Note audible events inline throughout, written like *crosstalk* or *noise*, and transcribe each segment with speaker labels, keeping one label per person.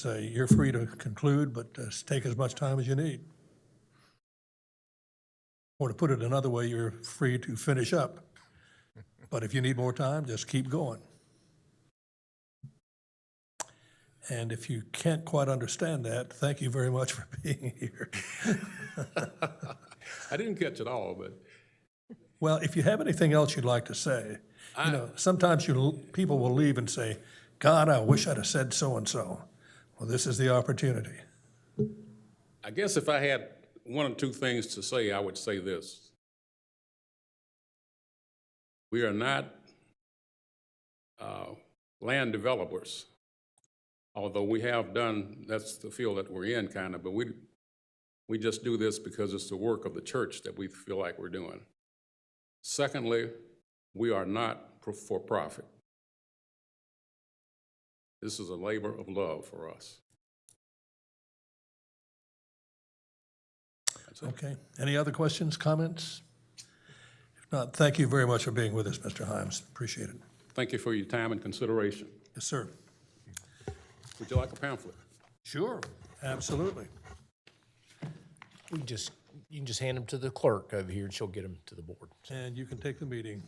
Speaker 1: So uh, you're free to conclude, but uh, take as much time as you need. Or to put it another way, you're free to finish up. But if you need more time, just keep going. And if you can't quite understand that, thank you very much for *laughs* being here.
Speaker 2: I didn't catch it all, but
Speaker 1: Well, if you have anything else you'd like to say, you know, sometimes you, people will leave and say, God, I wish I'd have said so-and-so. Well, this is the opportunity.
Speaker 2: I guess if I had one or two things to say, I would say this. We are not uh, land developers, although we have done, that's the field that we're in kind of, but we, we just do this because it's the work of the church that we feel like we're doing. Secondly, we are not pro- for profit. This is a labor of love for us. That's it.
Speaker 1: Okay. Any other questions, comments? If not, thank you very much for being with us, Mr. Himes. Appreciate it.
Speaker 2: Thank you for your time and consideration.
Speaker 1: Yes, sir.
Speaker 2: Would you like a pamphlet?
Speaker 1: Sure. Absolutely.
Speaker 3: We can just, you can just hand them to the clerk over here, and she'll get them to the board.
Speaker 1: And you can take the meeting.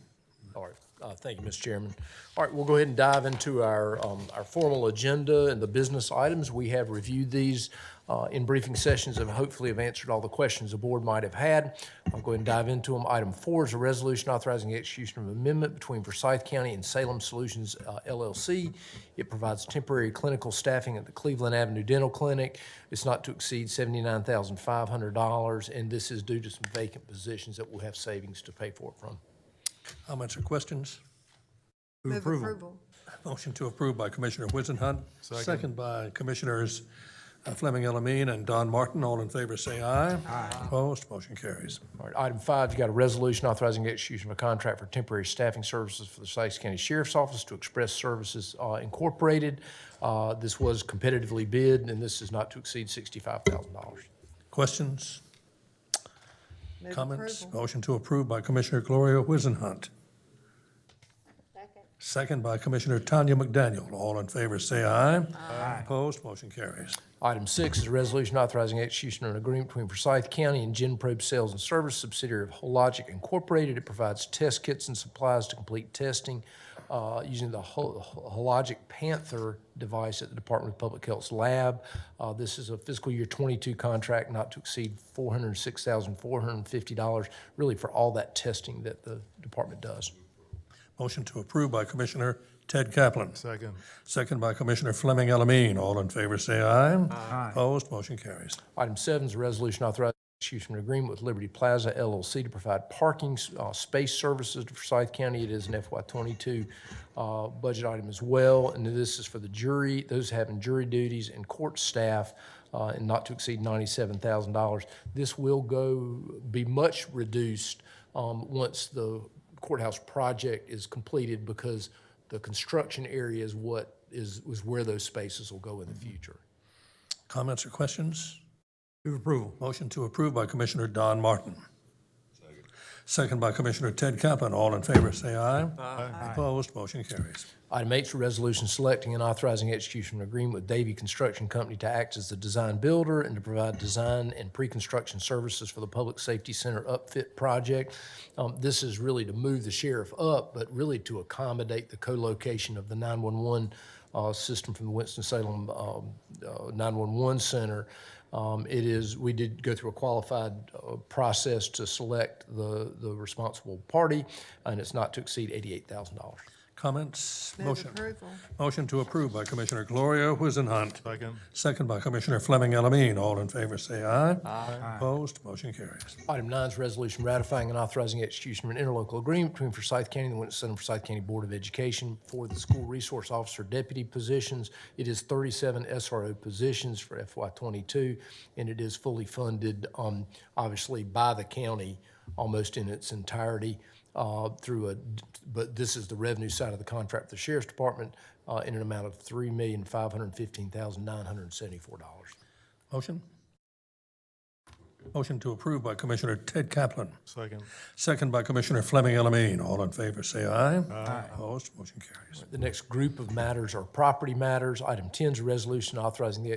Speaker 3: All right, uh, thank you, Mr. Chairman. All right, we'll go ahead and dive into our, um, our formal agenda and the business items. We have reviewed these, uh, in briefing sessions and hopefully have answered all the questions the board might have had. I'll go ahead and dive into them. Item four is a resolution authorizing the execution of an amendment between Forsyth County and Salem Solutions uh, LLC. It provides temporary clinical staffing at the Cleveland Avenue Dental Clinic. It's not to exceed seventy-nine thousand five hundred dollars, and this is due to some vacant positions that we'll have savings to pay for it from.
Speaker 1: Comments or questions?
Speaker 4: Move approval.
Speaker 1: Motion to approve by Commissioner Whizenhunt. Second by Commissioners uh, Fleming Elamine and Don Martin. All in favor, say aye. Aye. Opposed, motion carries.
Speaker 3: All right, item five, you got a resolution authorizing the execution of a contract for temporary staffing services for the Sussex County Sheriff's Office to Express Services uh, Incorporated. Uh, This was competitively bid, and this is not to exceed $65,000.
Speaker 1: Questions,
Speaker 4: Move
Speaker 1: comments? Oh,
Speaker 4: approval.
Speaker 1: Motion to approve by Commissioner Gloria Whizenhunt. Second by Commissioner Tanya McDaniel. All in favor, say aye. Aye. Opposed, motion carries.
Speaker 3: Item six is a resolution authorizing the execution of an agreement between Forsyth County and GenProbe Sales and Service subsidiary of Hologic Incorporated. It provides test kits and supplies to complete testing uh, using the Ho- Hologic Panther device at the Department of Public Health's lab. Uh, This is a fiscal year 22 contract not to exceed $406,450, really for all that testing that the department does.
Speaker 1: Motion to approve by Commissioner Ted Kaplan. Second. Second by Commissioner Fleming Elamine. All in favor, say aye. Aye. Opposed, motion carries.
Speaker 3: Item seven is a resolution authorizing execution of an agreement with Liberty Plaza LLC to provide parking uh, space services to Forsyth County. It is an FY twenty-two uh, budget item as well, and this is for the jury, those having jury duties and court staff, uh, and not to exceed ninety-seven thousand dollars. This will go, be much reduced um, once the courthouse project is completed because the construction area is what is, is where those spaces will go in the future.
Speaker 1: Comments or questions? Move approval. Motion to approve by Commissioner Don Martin. Second by Commissioner Ted Kaplan. All in favor, say aye. Aye. Opposed, motion carries.
Speaker 3: Item eight is a resolution selecting and authorizing execution of an agreement with Davy Construction Company to act as the design builder and to provide design and pre-construction services for the Public Safety Center upfit project. Um, this is really to move the sheriff up, but really to accommodate the co-location of the 911 uh, system from the Winston-Salem um, uh, 911 center. Um, It is, we did go through a qualified uh, process to select the, the responsible party, and it's not to exceed $88,000.
Speaker 1: Comments?
Speaker 4: Move
Speaker 1: Motion.
Speaker 4: approval.
Speaker 1: Motion to approve by Commissioner Gloria Whizenhunt. Second. Second by Commissioner Fleming Elamine. All in favor, say aye. Aye. Opposed, motion carries.
Speaker 3: Item nine is resolution ratifying and authorizing execution of an interlocal agreement between Forsyth County and the Winston Center Forsyth County Board of Education for the school resource officer deputy positions. It is thirty-seven SRO positions for FY twenty-two, and it is fully funded, um, obviously by the county almost in its entirety, uh, through a, but this is the revenue side of the contract, with the sheriff's department, uh, in an amount of three million, five hundred and fifteen thousand, nine hundred and seventy-four dollars.
Speaker 1: Motion? Motion to approve by Commissioner Ted Kaplan,
Speaker 5: Second.
Speaker 1: second by Commissioner Fleming Elamine. All in favor, say aye. Aye. Opposed, motion carries.
Speaker 3: The next group of matters are property matters. Item 10 is a resolution authorizing the